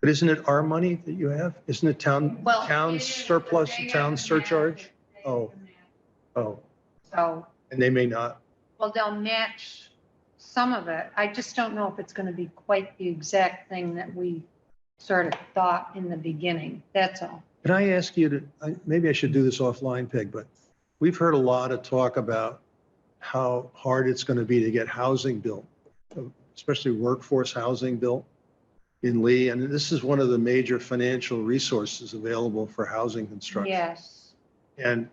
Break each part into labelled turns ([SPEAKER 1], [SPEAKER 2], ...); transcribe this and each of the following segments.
[SPEAKER 1] But isn't it our money that you have? Isn't it town,
[SPEAKER 2] Well,
[SPEAKER 1] town
[SPEAKER 2] it is, but
[SPEAKER 1] surplus,
[SPEAKER 2] they have
[SPEAKER 1] town
[SPEAKER 2] the
[SPEAKER 1] surcharge?
[SPEAKER 2] match.
[SPEAKER 1] Oh. Oh,
[SPEAKER 2] So,
[SPEAKER 1] and they may not.
[SPEAKER 2] well, they'll match some of it. I just don't know if it's going to be quite the exact thing that we sort of thought in the beginning. That's all.
[SPEAKER 1] Can I ask you to, I- maybe I should do this offline, Peg, but we've heard a lot of talk about how hard it's going to be to get housing built, especially workforce housing built in Lee. And this is one of the major financial resources available for housing construction.
[SPEAKER 2] Yes.
[SPEAKER 1] And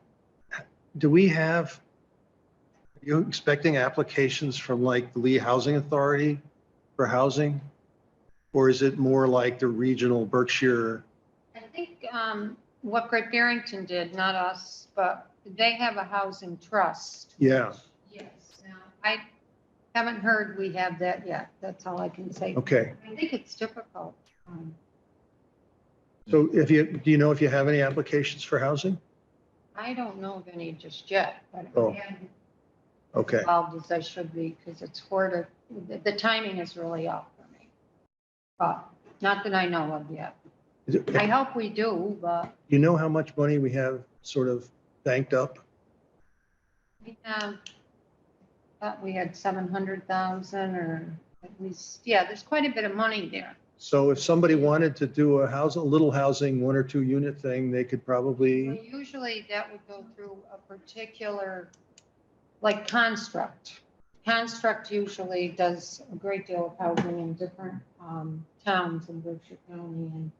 [SPEAKER 1] do we have, are you expecting applications from like the Lee Housing Authority for housing? Or is it more like the regional Berkshire?
[SPEAKER 2] I think um, what Great Barrington did, not us, but they have a housing trust.
[SPEAKER 1] Yeah,
[SPEAKER 2] Yes. Now, I haven't heard we have that yet. That's all I can say.
[SPEAKER 1] okay.
[SPEAKER 2] I think it's difficult. Um,
[SPEAKER 1] So if you, do you know if you have any applications for housing?
[SPEAKER 2] I don't know of any just yet, but
[SPEAKER 1] Oh,
[SPEAKER 2] I am
[SPEAKER 1] Okay,
[SPEAKER 2] involved as I should be because it's hard. of- The, the timing is really off for me. But not that I know of yet.
[SPEAKER 1] Is it-
[SPEAKER 2] I hope we do, but
[SPEAKER 1] you know how much money we have sort of banked up?
[SPEAKER 2] we have, thought we had 700,000 or at least, yeah, there's quite a bit of money there.
[SPEAKER 1] So if somebody wanted to do a house, a little housing, one or two unit thing, they could
[SPEAKER 2] Well,
[SPEAKER 1] probably,
[SPEAKER 2] Usually that would go through a particular, like construct. Construct usually does a great deal of housing in different um, towns in Berkshire County. And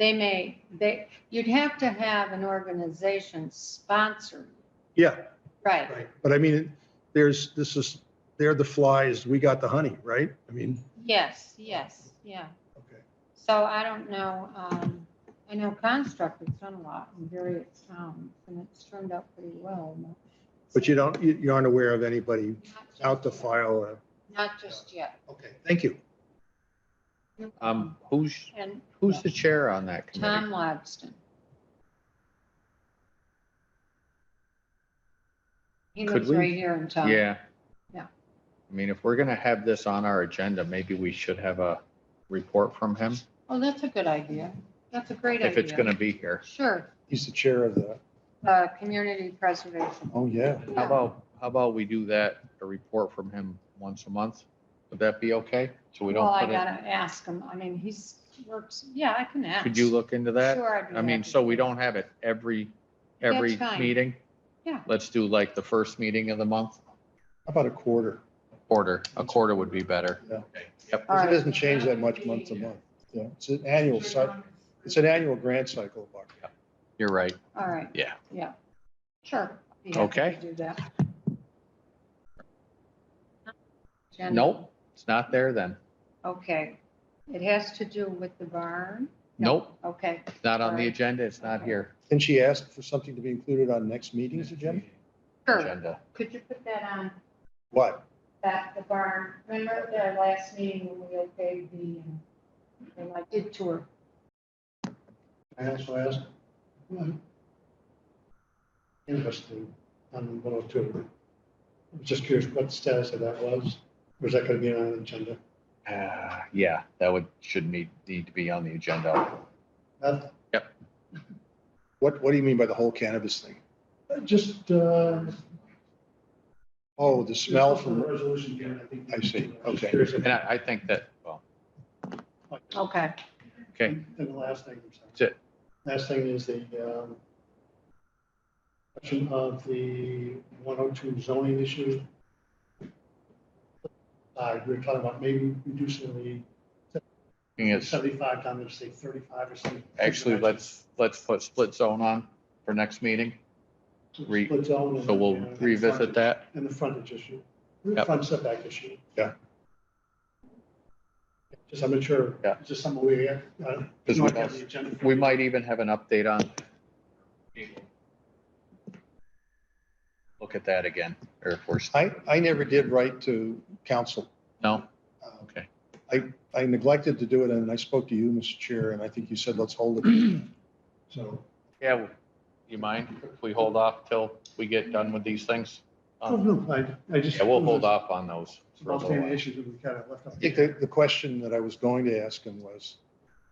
[SPEAKER 2] they may, they, you'd have to have an organization sponsor,
[SPEAKER 1] yeah,
[SPEAKER 2] right?
[SPEAKER 1] right. But I mean, there's, this is, they're the flies, we got the honey, right? I mean,
[SPEAKER 2] Yes, yes, yeah.
[SPEAKER 1] okay.
[SPEAKER 2] So I don't know, um, I know construct has done a lot in various towns and it's turned out pretty well.
[SPEAKER 1] But you don't, you you aren't aware of anybody
[SPEAKER 2] Not just
[SPEAKER 1] out to
[SPEAKER 2] yet.
[SPEAKER 1] file uh, a,
[SPEAKER 2] Not just yet.
[SPEAKER 1] okay, thank you.
[SPEAKER 3] Um, who's,
[SPEAKER 2] And
[SPEAKER 3] who's the chair on that committee?
[SPEAKER 2] Tom Lobston. He
[SPEAKER 3] Could
[SPEAKER 2] lives
[SPEAKER 3] we-
[SPEAKER 2] right here in town.
[SPEAKER 3] Yeah.
[SPEAKER 2] Yeah.
[SPEAKER 3] I mean, if we're gonna have this on our agenda, maybe we should have a report from him
[SPEAKER 2] Oh, that's a good idea. That's a great idea.
[SPEAKER 3] if it's gonna be here.
[SPEAKER 2] Sure,
[SPEAKER 1] He's the chair of the,
[SPEAKER 2] uh, community preservation.
[SPEAKER 1] oh, yeah.
[SPEAKER 3] How about, how about we do that, a report from him once a month? Would that be okay? So we
[SPEAKER 2] Well,
[SPEAKER 3] don't
[SPEAKER 2] I
[SPEAKER 3] put it,
[SPEAKER 2] gotta ask him. I mean, he's works, yeah, I can ask.
[SPEAKER 3] could you look into that?
[SPEAKER 2] Sure, I'd be
[SPEAKER 3] I mean,
[SPEAKER 2] happy
[SPEAKER 3] so we
[SPEAKER 2] to.
[SPEAKER 3] don't have it every, every
[SPEAKER 2] That's fine.
[SPEAKER 3] meeting?
[SPEAKER 2] Yeah.
[SPEAKER 3] Let's do like the first meeting of the month,
[SPEAKER 1] How about a quarter?
[SPEAKER 3] quarter, a quarter would be better.
[SPEAKER 1] Yeah.
[SPEAKER 2] All
[SPEAKER 3] Yep,
[SPEAKER 1] Because
[SPEAKER 2] right.
[SPEAKER 1] it doesn't change that much month to month. Yeah, it's an annual cycle. It's an annual grant cycle, Buck.
[SPEAKER 3] you're right.
[SPEAKER 2] All right.
[SPEAKER 3] Yeah.
[SPEAKER 2] Yeah. Sure. Be happy to
[SPEAKER 3] Okay.
[SPEAKER 2] Do that. Agenda.
[SPEAKER 3] Nope, it's not there then.
[SPEAKER 2] Okay. It has to do with the barn? No.
[SPEAKER 3] Nope,
[SPEAKER 2] Okay,
[SPEAKER 3] it's not on the
[SPEAKER 2] Sorry.
[SPEAKER 3] agenda, it's not here.
[SPEAKER 1] Can she ask for something to be included on next meeting's agenda?
[SPEAKER 2] sure.
[SPEAKER 3] Agenda.
[SPEAKER 2] Could you put that on
[SPEAKER 1] What?
[SPEAKER 2] back the barn? Remember the last meeting when we okayed the, and I did tour?
[SPEAKER 4] I also asked. Interesting, on one oh two. I was just curious what the status of that was. Was that gonna be on the agenda?
[SPEAKER 3] Uh, Yeah, that would, should need, need to be on the agenda.
[SPEAKER 4] That,
[SPEAKER 1] What, what do you mean by the whole cannabis thing?
[SPEAKER 4] just, uh.
[SPEAKER 1] Oh, the smell
[SPEAKER 4] the
[SPEAKER 1] from,
[SPEAKER 4] Resolution here, I think.
[SPEAKER 1] I see,
[SPEAKER 4] I was just
[SPEAKER 1] okay.
[SPEAKER 4] curious if-
[SPEAKER 3] And I, I think that, well,
[SPEAKER 2] Okay,
[SPEAKER 3] okay,
[SPEAKER 4] And the last thing, I'm sorry.
[SPEAKER 3] That's it.
[SPEAKER 4] Last thing is the, um, question of the one oh two zoning issue. Uh, we were talking about maybe reducing
[SPEAKER 3] thing
[SPEAKER 4] the
[SPEAKER 3] is,
[SPEAKER 4] seventy-five down to say thirty-five or something.
[SPEAKER 3] actually, let's, let's put split zone on for next meeting. re-
[SPEAKER 4] Split zone and- uh,
[SPEAKER 3] So we'll
[SPEAKER 4] and the
[SPEAKER 3] revisit
[SPEAKER 4] frontage-
[SPEAKER 3] that.
[SPEAKER 4] And the frontage issue,
[SPEAKER 3] Yep.
[SPEAKER 4] front setback issue.
[SPEAKER 1] Yeah.
[SPEAKER 4] Just, I'm not sure.
[SPEAKER 3] Yeah.
[SPEAKER 4] Just some way, uh, not
[SPEAKER 3] Because we
[SPEAKER 4] have the
[SPEAKER 3] don't-
[SPEAKER 4] agenda for
[SPEAKER 3] We
[SPEAKER 4] you.
[SPEAKER 3] might even have an update on. Look at that again, or if we're,
[SPEAKER 1] I, I never did write to council.
[SPEAKER 3] no,
[SPEAKER 1] Um,
[SPEAKER 3] Okay.
[SPEAKER 1] I, I neglected to do it and I spoke to you, Mr. Chair, and I think you said, let's hold it. So,
[SPEAKER 3] yeah, you mind if we hold off till we get done with these things?
[SPEAKER 4] Oh,
[SPEAKER 3] Um,
[SPEAKER 4] no, I, I just.
[SPEAKER 3] Yeah, we'll hold off on those. for a
[SPEAKER 4] About
[SPEAKER 3] little
[SPEAKER 4] the
[SPEAKER 3] while.
[SPEAKER 4] issues that we kind of left
[SPEAKER 1] I
[SPEAKER 4] off.
[SPEAKER 1] think the, the question that I was going to ask him was,